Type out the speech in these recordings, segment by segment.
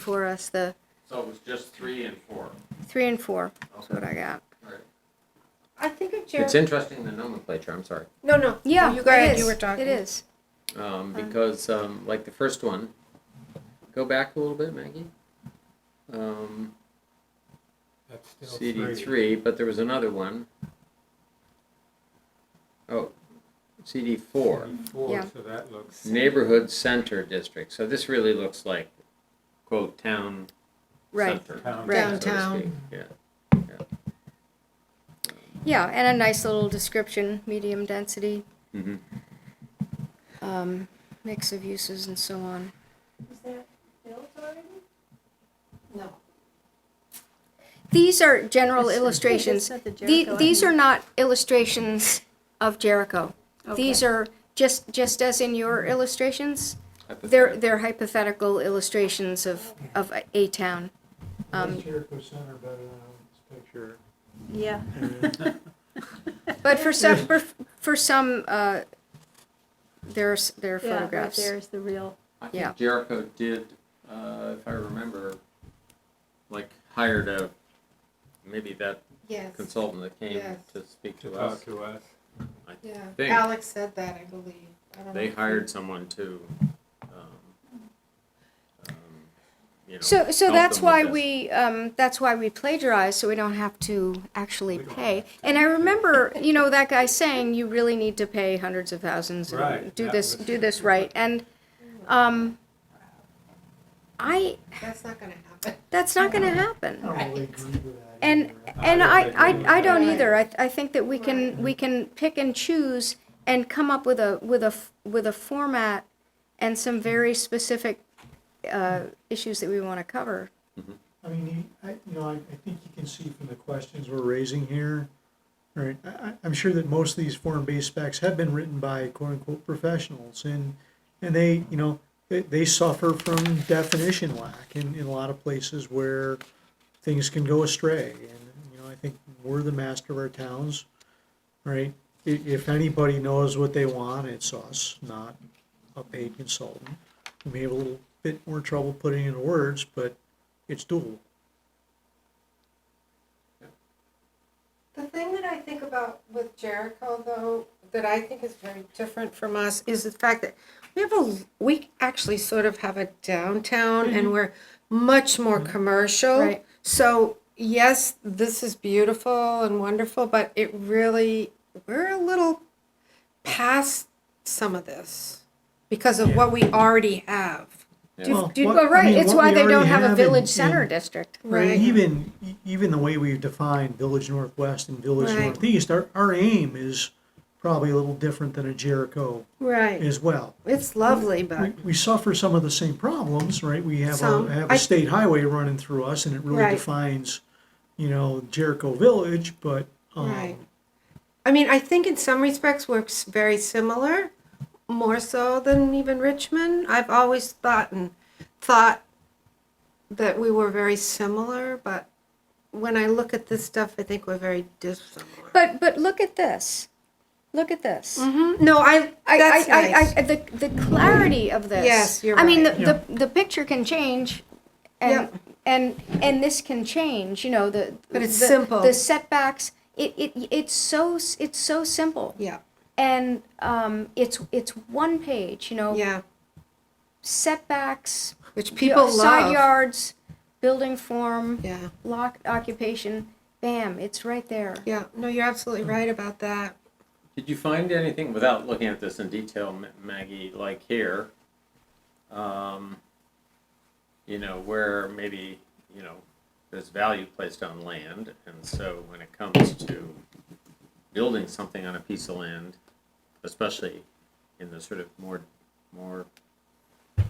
for us, the So it was just three and four. three and four, is what I got. I think of It's Jeremy. interesting, the nomenclature, I'm sorry. No, no. Yeah, you it go ahead. is. You were talking. It is. Um, because, um, like the first one, go back a little bit, Maggie. Um, That's still CD three. three, but there was another one. Oh, CD four, Four, Yeah. so that looks. neighborhood center district. So this really looks like quote town Right. center. Town Right. so to Downtown. speak. Yeah. Yeah, and a nice little description, medium density, Mhm. um, mix of uses and so on. Is that built already? No. These are general illustrations. It's not the The- Jericho, These I are not illustrations of Jericho. These are just, just as in your illustrations, they're, Hypothetical. they're hypothetical illustrations of, of a- a town. Um, That's Jericho Center better than Yeah. this picture. But for some, for, for some, uh, there's, there are Yeah, right photographs. There's the real. I yeah. think Jericho did, uh, if I remember, like hired a, maybe that Yes, consultant that came Yes. to speak To to us. talk to us. yeah. Thing. Alex said that, I believe. I don't They know. hired someone to, um, um, you know. So, so help that's them with why this. we, um, that's why we plagiarize, so we don't have to actually pay. And I remember, you know, that guy saying, you really need to pay hundreds of thousands and Right, do that this, was- do this right. And, um, I, That's not gonna happen. that's not gonna happen. Right. And, I and don't I, think we I, I would. don't Right. either. I, I think that we can, we can pick and choose and come up with a, with a, f- with a format and some very specific, uh, issues that we want to cover. I mean, you- I, you know, I, I think you can see from the questions we're raising here, right, I, I- I'm sure that most of these form-based specs have been written by quote-unquote professionals, and, and they, you know, they, they suffer from definition lack in, in a lot of places where things can go astray, and, you know, I think we're the master of our towns, right? If, if anybody knows what they want, it's us, not a paid consultant. We may have a little bit more trouble putting it into words, but it's doable. The thing that I think about with Jericho, though, that I think is very different from us is the fact that we have a, we actually sort of have a downtown Mm-hmm. and we're much more Mm-hmm. commercial. Right. So, yes, this is beautiful and wonderful, but it really, we're a little past some of this because of what we already have. Do- Well, do- what- Well, I right, mean, it's what why we they don't already have a have village in- center in- district. Right, even, e- even the way we've defined Village Northwest and Village Right. Northeast, our, our aim is probably a little different than a Jericho Right. as well. It's lovely, We, but we suffer some of the same problems, right? We have Some. a, have I- a state highway running through us and it really Right. defines, you know, Jericho Village, but, um, Right. I mean, I think in some respects we're s- very similar, more so than even Richmond. I've always thought and thought that we were very similar, but when I look at this stuff, I think we're very dissimilar. But, but look at this. Look at this. Mhm. No, I. I, that's I, nice. I, I, the, the clarity of this. Yes, you're I mean, the, right. the, the picture can change, and Yep. and and this can change. You know, the But it's the, simple. The setbacks. It, it it's so s- it's so simple, yeah. and um, it's it's one page. You know, Yeah. setbacks, Which people y- love. side yards, building form, Yeah. lock occupation. Bam! It's right there. Yeah. No, you're absolutely right about that. Did you find anything, without looking at this in detail, Ma- Maggie, like here, um, you know, where maybe, you know, there's value placed on land, and so when it comes to building something on a piece of land, especially in the sort of more, more uh,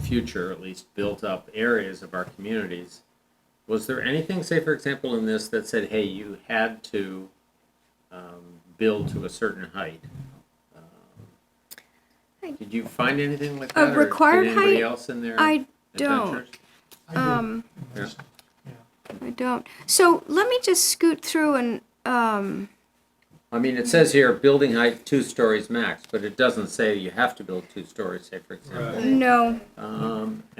future, at least built-up areas of our communities, was there anything, say, for example, in this that said, hey, you had to um, build to a certain height. Um, Did you find anything like A that? or required did anybody height? else in their I don't. adventures? I did- Um, Yeah. I don't. So let me just scoot through and um, I mean, it says here building height two stories max, but it doesn't say you have to build two stories. Say, for example, Right. no. um,